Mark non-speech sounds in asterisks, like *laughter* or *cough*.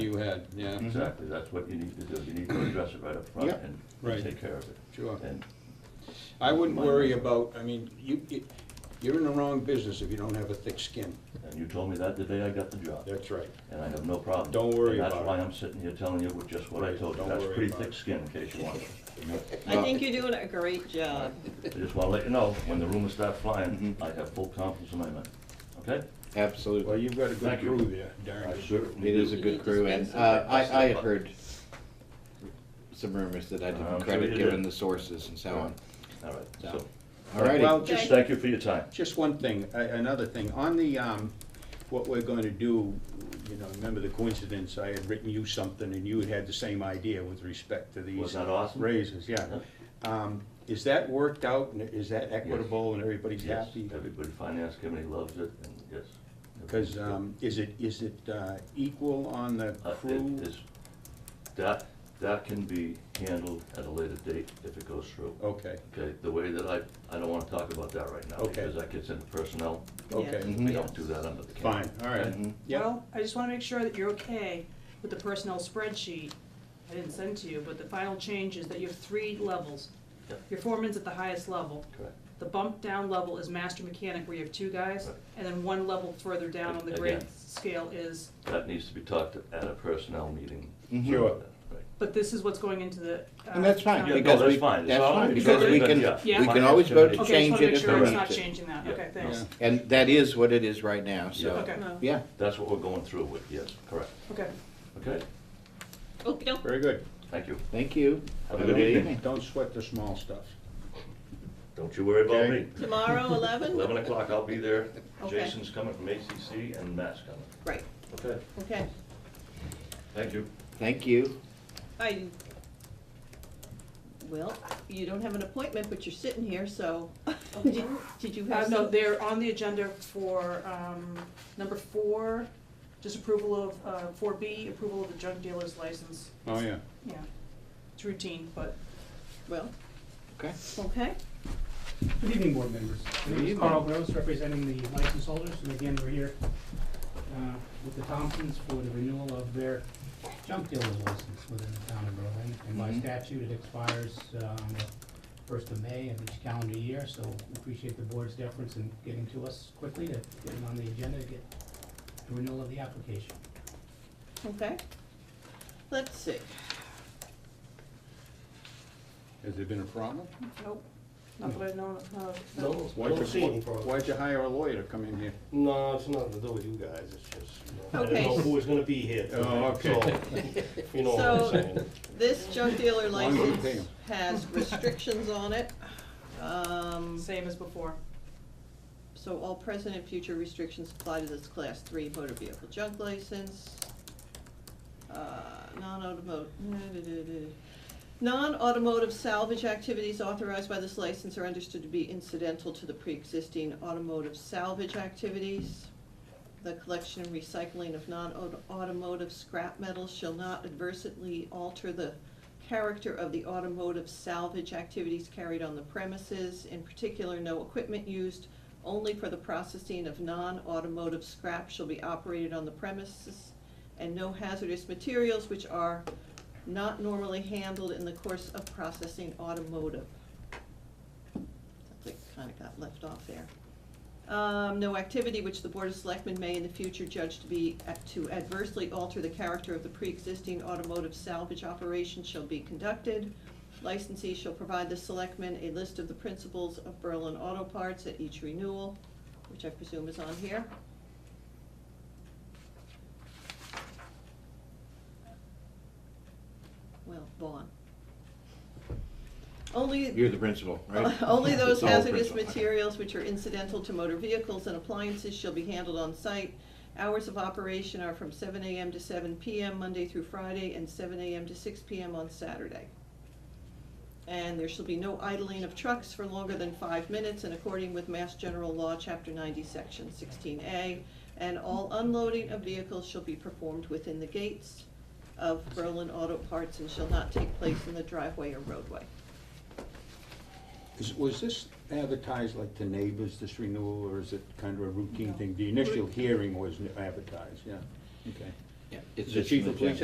ahead, yeah, Exactly, that's what you need to do, you need to address it right up front Yep. and Right. take care of it. sure. And I wouldn't Mine worry doesn't. about, I mean, you, you- you're in the wrong business if you don't have a thick skin. And you told me that the day I got the job, That's right. and I have no problem. Don't worry And about that's why it. I'm sitting here telling you with just what I Right, told you. don't That's worry pretty about thick it. skin, in case you want *laughs* it. I think you're doing a great job. I just wanna let you know, when the rumors start flying, I have full confidence in my men, okay? Well, Absolutely. you've got a good Thank you. crew there, darn I it. certainly It is a do. You need good to crew, spend and some uh, time with I, I them. have heard some rumors that I I'm didn't sure credit, you given did. the sources and so on. All Uh, right, so, All righty. Well, just just, thank you for your time. just one thing, a- another thing, on the, um, what we're going to do, you know, remember the coincidence, I had written you something and you had had the same idea with respect to these. Was that awesome? Raises, yeah. Um, is that worked out and is that equitable and everybody's Yes, happy? everybody, finance committee loves it, and yes. Because, um, is it, is it, uh, equal on the Uh, it- crew? it's- That, that can be handled at a later date if it goes through. Okay, Okay, the way that I, I don't wanna talk about that right now, Okay. because that gets into personnel. okay, We don't do that under the county. fine, all right. Mhm. Yeah, Well, I just want to make sure that you're okay with the personnel spreadsheet I didn't send to you, but the final change is that you have three levels. Yeah. Your foreman's at the highest level. Correct. The bump down level is master mechanic where you have two guys, Right. and then one level further down on the grade Again. scale is, That needs to be talked at a personnel meeting. Mhm. Mm-hmm. Sure. Right. but this is what's going into the. uh, And that's fine, Yeah, no, county. because that's we, fine. It's that's all- fine, it's because we already can, done, yeah. we can always vote Okay, Okay, I to just change want to it make if sure it's we it's need not to. changing that. Yeah. Okay, thanks. And that is what it is right now, so, Okay, No. yeah. That's what we're going through with, yes, correct. okay. Okay, Okey-doke. very good. thank you. Thank you. Have a good evening. Don't sweat the small stuff. Don't you worry about Okay. me. *laughs* Tomorrow, eleven? Eleven o'clock, I'll be there. Okay. Jason's coming from ACC and Matt's coming. Right, Okay, okay. thank you. Thank you. I, well, you don't have an appointment, but you're sitting here, so, *laughs* did did you Uh, have no, some? they're on the agenda for, um, number four, just approval of, uh, four B, approval of the junk dealer's license. Oh, yeah. Yeah, it's routine, but Well, Okay. okay, Good evening, board members. My name is evening. Carl Gross, representing the license holders, and again, we're here uh, with the Thompsons for the renewal of their junk dealer's license within the town of Berlin. And by Mhm. statute, it expires uh, on the first of May of each calendar year, so we appreciate the board's deference in getting to us quickly to get it on the agenda to get the renewal of the application. okay. Let's see, Has there been a problem? nope, not that I know of, no. No, Why'd don't see any you, problem. why'd you hire a lawyer to come in here? No, it's nothing to do with you guys, it's just, you know, I Okay. didn't know who was gonna be here Oh, tonight, so, you know what So- I'm saying? this junk dealer Why don't you pay license 'em? has restrictions on it. Um, Same as before. so all present and future restrictions apply to this class three motor vehicle junk license. Uh, non-automotive, *laughs* non-automotive salvage activities authorized by this license are understood to be incidental to the pre-existing automotive salvage activities. The collection and recycling of non-automotive scrap metals shall not adversely alter the character of the automotive salvage activities carried on the premises. In particular, no equipment used only for the processing of non-automotive scrap shall be operated on the premises, and no hazardous materials which are not normally handled in the course of processing automotive. I think kinda got left off there. Um, no activity which the Board of Selectmen may in the future judge to be, to adversely alter the character of the pre-existing automotive salvage operation shall be conducted. Licensee shall provide the selectmen a list of the principles of Berlin Auto Parts at each renewal, which I presume is on here. Well, Vaughn. Only. You're the principal, right? *laughs* Only those It's all hazardous principal. materials which are incidental to motor vehicles and appliances shall be handled on site. Hours of operation are from seven AM to seven PM, Monday through Friday, and seven AM to six PM on Saturday. And there shall be no idling of trucks for longer than five minutes in according with Mass General Law, Chapter ninety, Section sixteen A. And all unloading of vehicles shall be performed within the gates of Berlin Auto Parts and shall not take place in the driveway or roadway. Is, was this advertised like to neighbors, this renewal, or is it kind of a routine No. thing? The initial hearing was advertised, yeah, okay. Yeah, it's The just chief an of police agenda.